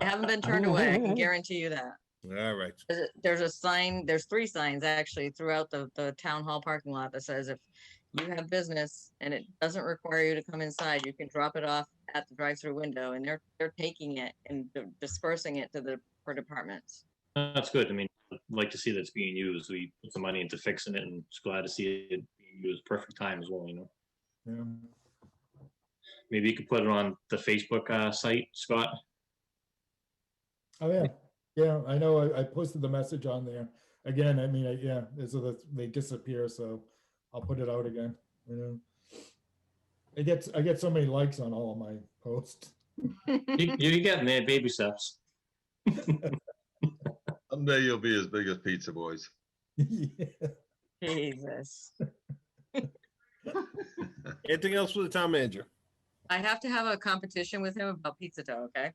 I haven't been turned away. I can guarantee you that. All right. There's a- There's a sign, there's three signs actually throughout the, the town hall parking lot that says if you have business and it doesn't require you to come inside, you can drop it off at the drive-through window and they're, they're taking it and di- dispersing it to the, for departments. That's good. I mean, I'd like to see that's being used. We put some money into fixing it and just glad to see it being used. Perfect time as well, you know. Yeah. Maybe you could put it on the Facebook uh, site, Scott. Oh, yeah. Yeah, I know. I, I posted the message on there. Again, I mean, I, yeah, so that they disappear, so I'll put it out again, you know. I get, I get so many likes on all of my posts. You- You're getting there, baby steps. Someday you'll be as big as Pizza Boys. Yeah. Jesus. Anything else for the town manager? I have to have a competition with him about pizza dough, okay?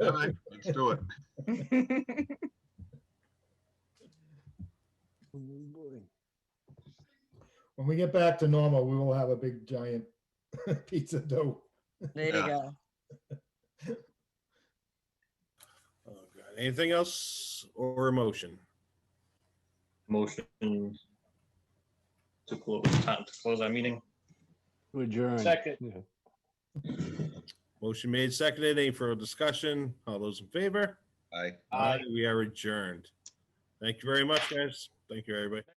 All right, let's do it. When we get back to normal, we will have a big giant pizza dough. There you Yeah. go. Oh, God. Anything else or a motion? Motion to close, time to close our meeting. To adjourn. Second. Yeah. Motion made, seconded. Any further discussion? All those in favor? Bye. Aye. We are adjourned. Thank you very much, guys. Thank you, everybody.